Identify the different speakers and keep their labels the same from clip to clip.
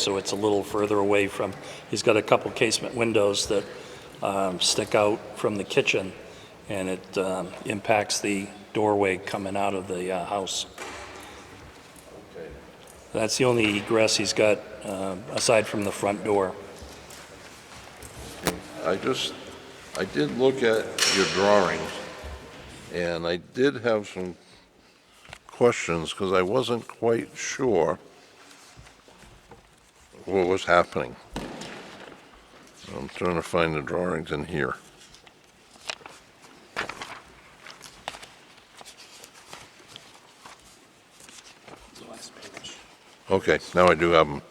Speaker 1: so it's a little further away from, he's got a couple casement windows that um, stick out from the kitchen, and it um, impacts the doorway coming out of the uh, house. That's the only egress he's got, uh, aside from the front door.
Speaker 2: I just, I did look at your drawings, and I did have some questions, because I wasn't quite sure what was happening. I'm trying to find the drawings in here. Okay, now I do have them.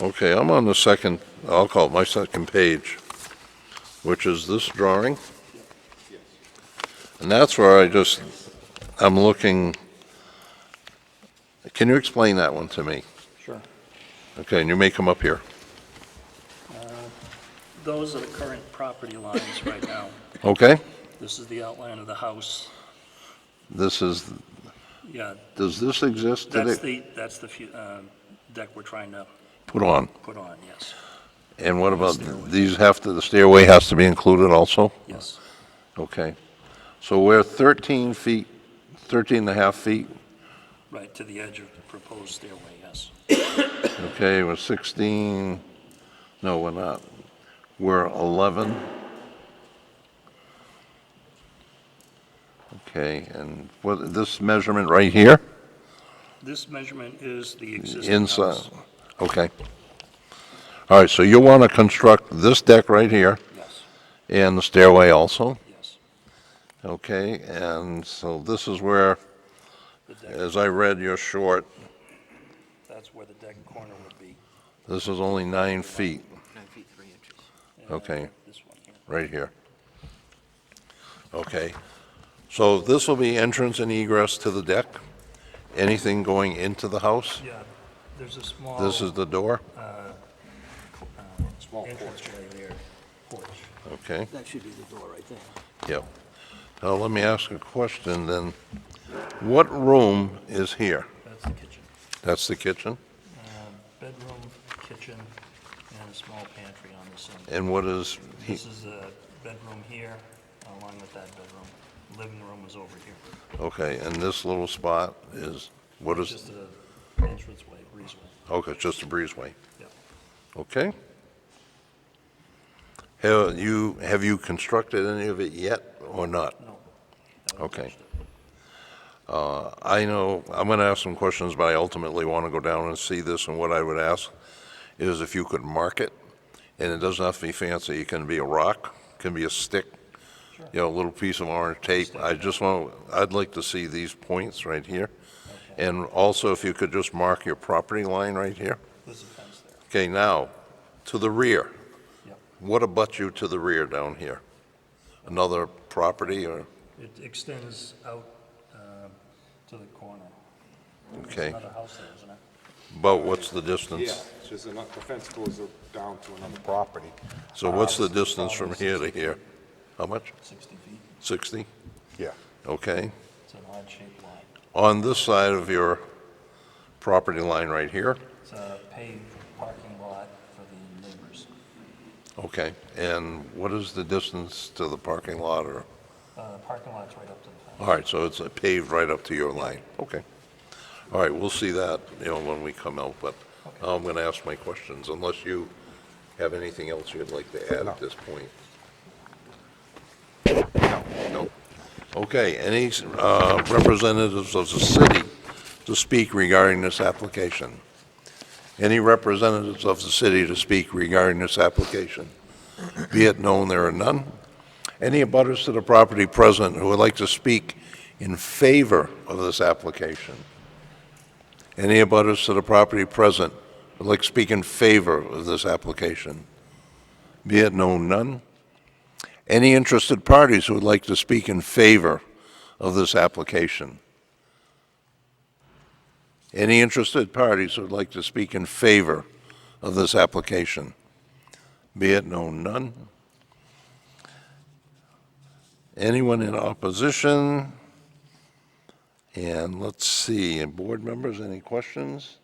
Speaker 2: Okay, I'm on the second, I'll call it my second page, which is this drawing. And that's where I just, I'm looking, can you explain that one to me?
Speaker 1: Sure.
Speaker 2: Okay, and you may come up here.
Speaker 1: Those are the current property lines right now.
Speaker 2: Okay?
Speaker 1: This is the outline of the house.
Speaker 2: This is,
Speaker 1: Yeah,
Speaker 2: does this exist? Did
Speaker 1: that's
Speaker 2: it
Speaker 1: the, that's the fu- uh, deck we're trying to
Speaker 2: Put on.
Speaker 1: put on, yes,
Speaker 2: And what about,
Speaker 1: Stairway.
Speaker 2: these have to, the stairway has to be included also?
Speaker 1: yes.
Speaker 2: Okay. So we're 13 feet, 13 and a half feet
Speaker 1: Right, to the edge of the proposed stairway, yes.
Speaker 2: Okay, we're 16, no, we're not. We're 11. Okay, and what, this measurement right here?
Speaker 1: This measurement is the existing
Speaker 2: Inside,
Speaker 1: house.
Speaker 2: okay. All right, so you want to construct this deck right here
Speaker 1: Yes,
Speaker 2: and the stairway also?
Speaker 1: yes.
Speaker 2: Okay, and so this is where,
Speaker 1: The deck,
Speaker 2: as I read your short,
Speaker 1: that's where the deck corner would be.
Speaker 2: this is only nine feet
Speaker 3: Nine feet, three inches.
Speaker 1: and
Speaker 2: Okay.
Speaker 1: This one here.
Speaker 2: right here. Okay, so this will be entrance and egress to the deck? Anything going into the house?
Speaker 1: Yeah, there's a small
Speaker 2: This is the door?
Speaker 3: Small porch.
Speaker 1: porch.
Speaker 2: Okay,
Speaker 3: That should be the door right there.
Speaker 2: yep. Now, let me ask a question then. What room is here?
Speaker 1: That's the kitchen.
Speaker 2: That's the kitchen?
Speaker 1: Bedroom, kitchen, and a small pantry on this end.
Speaker 2: And what is, he-
Speaker 1: This is a bedroom here, along with that bedroom. Living room is over here.
Speaker 2: okay, and this little spot is, what is,
Speaker 1: Just an entranceway, breezeway.
Speaker 2: okay, it's just a breezeway,
Speaker 1: Yep.
Speaker 2: okay? Have you, have you constructed any of it yet or not?
Speaker 1: No. haven't
Speaker 2: Okay.
Speaker 1: touched it.
Speaker 2: I know, I'm going to ask some questions, but I ultimately want to go down and see this, and what I would ask is if you could mark it, and it doesn't have to be fancy, it can be a rock, can be a stick, you know, a little piece of orange tape. I just want, I'd like to see these points right here, and also if you could just mark your property line right here.
Speaker 1: There's a fence there.
Speaker 2: Okay, now, to the rear.
Speaker 1: Yep.
Speaker 2: What abuts you to the rear down here? Another property, or,
Speaker 1: It extends out um, to the corner.
Speaker 2: okay,
Speaker 1: Another house there, isn't it?
Speaker 2: but what's the
Speaker 4: Yeah,
Speaker 2: distance?
Speaker 4: it's just ano- the fence goes down to another property.
Speaker 2: So what's the distance from here to here? How much?
Speaker 1: 60 feet.
Speaker 2: 60?
Speaker 4: Yeah.
Speaker 2: Okay.
Speaker 1: It's an odd-shaped line.
Speaker 2: On this side of your property line right here?
Speaker 1: It's a paved parking lot for the neighbors.
Speaker 2: Okay. And what is the distance to the parking lot or?
Speaker 1: Uh, Parking lot's right up to the
Speaker 2: All
Speaker 1: fence.
Speaker 2: right, so it's paved right up to your line. Okay. All right, we'll see that, you know, when we come out, but now I'm going to ask my questions unless you have anything else you'd like to add
Speaker 4: No.
Speaker 2: at this point. No. Okay, any uh, representatives of the city to speak regarding this application? Any representatives of the city to speak regarding this application? Be it known there are none. Any abutters to the property present who would like to speak in favor of this application? Any abutters to the property present who would like to speak in favor of this application? Be it known, none. Any interested parties who would like to speak in favor of this application? Any interested parties who would like to speak in favor of this application? Be it known, none. Anyone in opposition? And let's see, and board members, any questions?